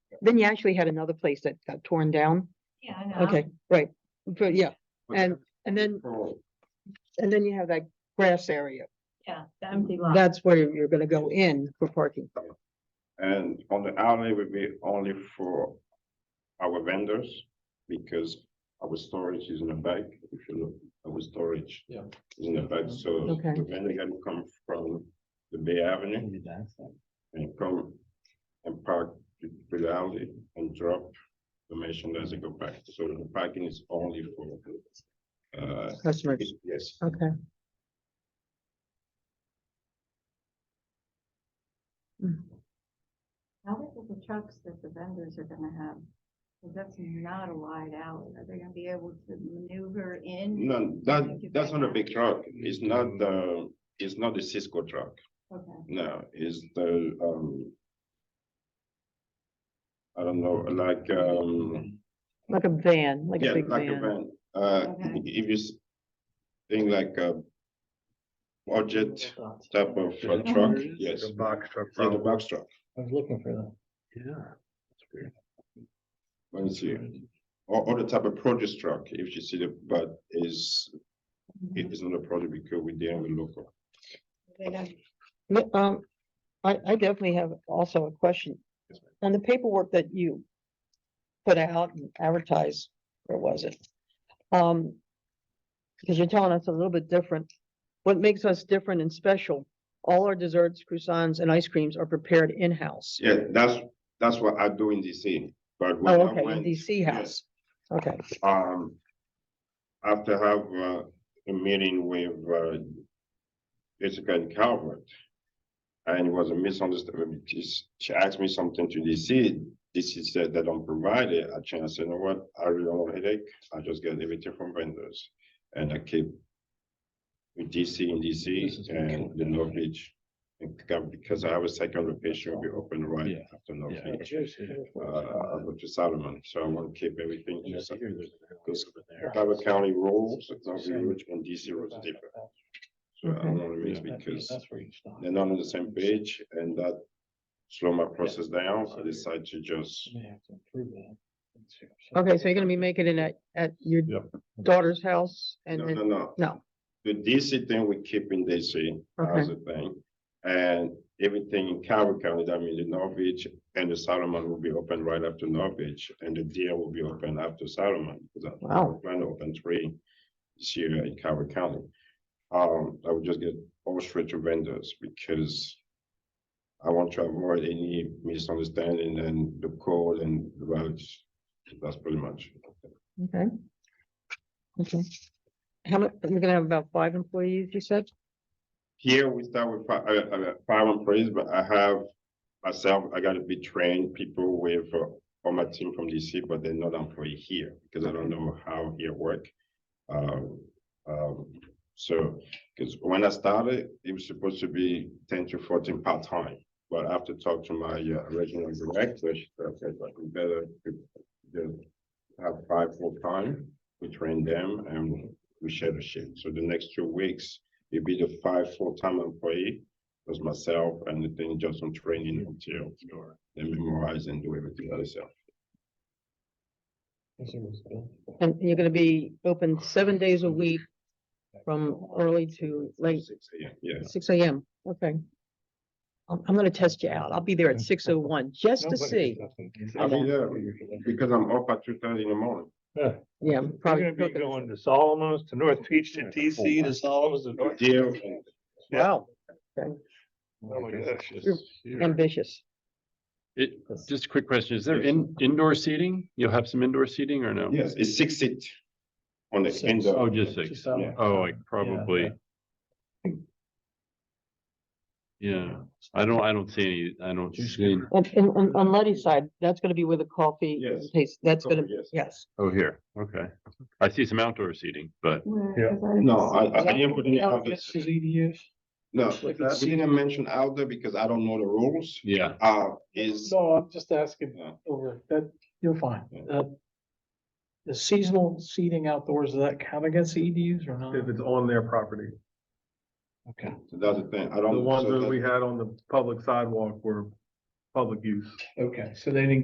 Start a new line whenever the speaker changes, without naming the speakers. then you actually had another place that got torn down.
Yeah, I know.
Okay, right, but yeah,
But
and, and then, and then you have that grass area.
Yeah, the empty lot.
That's where you're gonna go in for parking.
And on the alley would be only for our vendors, because our storage is in the back, if you look, our storage.
Yeah.
Is in the back, so
Okay.
the vendor can come from the Bay Avenue
Maybe that's it.
and come and park to the alley and drop the machine as they go back, so the parking is only for. Uh,
Customers,
yes,
okay.
How big are the trucks that the vendors are gonna have? 'Cause that's not a wide alley. Are they gonna be able to maneuver in?
no, that, that's not a big truck, it's not the, it's not the Cisco truck.
Okay,
No, is the, um. I don't know, like, um,
Like a van, like
yeah,
a big
like a
van.
van, uh,
Okay.
if you. s- Think like a. Budget type of uh,
Mhm.
truck, yes,
The box truck.
yeah, the
probably.
box truck,
I was looking for that. Yeah.
let me see, or, or the type of produce truck, if you see the, but is.
Mm-hmm.
It is not a project because we deal with local,
They're gonna
No, Um, I, I definitely have also a question.
Yes, ma'am.
On the paperwork that you put out and advertised, where was it? Um, because you're telling us a little bit different. What makes us different and special? All our desserts, croissants and ice creams are prepared in-house.
yeah, that's, that's what I do in DC, but. when
Oh,
I
okay,
went-
in DC
yes.
house. Okay,
um, after have uh, a meeting with uh, Jessica and Calvert. And it was a misunderstanding, because she asked me something to DC, DC said they don't provide it, I changed, you know what, I really don't want a headache, I just get everything from vendors. And I keep with DC in
This is
DC and the North Beach. and Cal- Because I have a second location, will be open right
Yeah.
after North
Yeah.
Beach, uh, I go to Solomon, so I want to keep everything.
Yeah,
to Sol-
I hear there's an alley over there.
Delaware County rules, it's not
Same.
really Richmond DC rules are different. So I
Okay.
don't want to
Yeah,
mix
that- yeah,
because
that's where you stop.
they're not on the same page and that slow my process down. I decide to just,
May have to improve that. Let's see.
okay, so you're gonna be making it at, at your
Yep.
daughter's house and
no,
then,
no, no.
no,
The DC thing we keep in DC as a thing. And everything in Calvert County, that means the Norwich and the Solomon will be open right after Norwich and the deer will be open after Solomon. because I-
Wow.
Plan to open three this year in Calvert County. Um, I would just get all straight to vendors because I want to avoid any misunderstanding and the code and the values. That's pretty much.
okay. Okay. How much, you're gonna have about five employees, you said?
Here, we start with fi- uh, uh, five employees, but I have myself, I gotta be trained people with, uh, on my team from DC, but they're not employee here, because I don't know how here work. Um, um, so, because when I started, it was supposed to be ten to fourteen part-time, but after talk to my uh, regional director, she said, okay, but we better just have five full-time, we train them and we share the shift. So the next two weeks, it'd be the five full-time employee, plus myself, and the thing just on training until they memorize and do everything by themselves.
This one was built.
And you're gonna be open seven days a week from early to late,
Six AM, yes.
six AM, okay. I'm, I'm gonna test you out. I'll be there at six oh one, just to
Nobody
see.
does that.
I mean, yeah, because I'm up at two thirty in the morning.
Yeah,
You're
probably.
gonna be
cooking.
going to Solomon's, to North Beach, to DC, to Solomon's, to
Oh.
North.
Deal,
Wow,
Oh my gosh.
You're- ambitious.
It, just a quick question, is there in, indoor seating? You'll have some indoor seating or no?
yes, it's six seat on the
Six.
end
Oh,
of,
just six.
Just that
yeah.
one.
Oh, like probably. Yeah, I don't, I don't see any, I don't see, any-
And, and on, on Letty's side, that's gonna be where the coffee
Yes.
tastes, that's gonna,
Coffee, yes.
yes.
oh, here, okay. I see some outdoor seating, but
Where-
Yeah.
'cause I
no,
just-
I, I didn't put any
Outfits
other,
is EDUs?
no,
Like
we
that?
didn't mention outdoor because I don't know the rules.
yeah,
Uh, is,
No, I'm just asking
Yeah.
over that, you're fine.
Yeah.
Uh, The seasonal seating outdoors, does that count against EDUs or not?
If it's on their property,
Okay.
that's the thing, I
the
don't.
ones
Um, so
that
that-
we had on the public sidewalk were public use.
Okay, so they didn't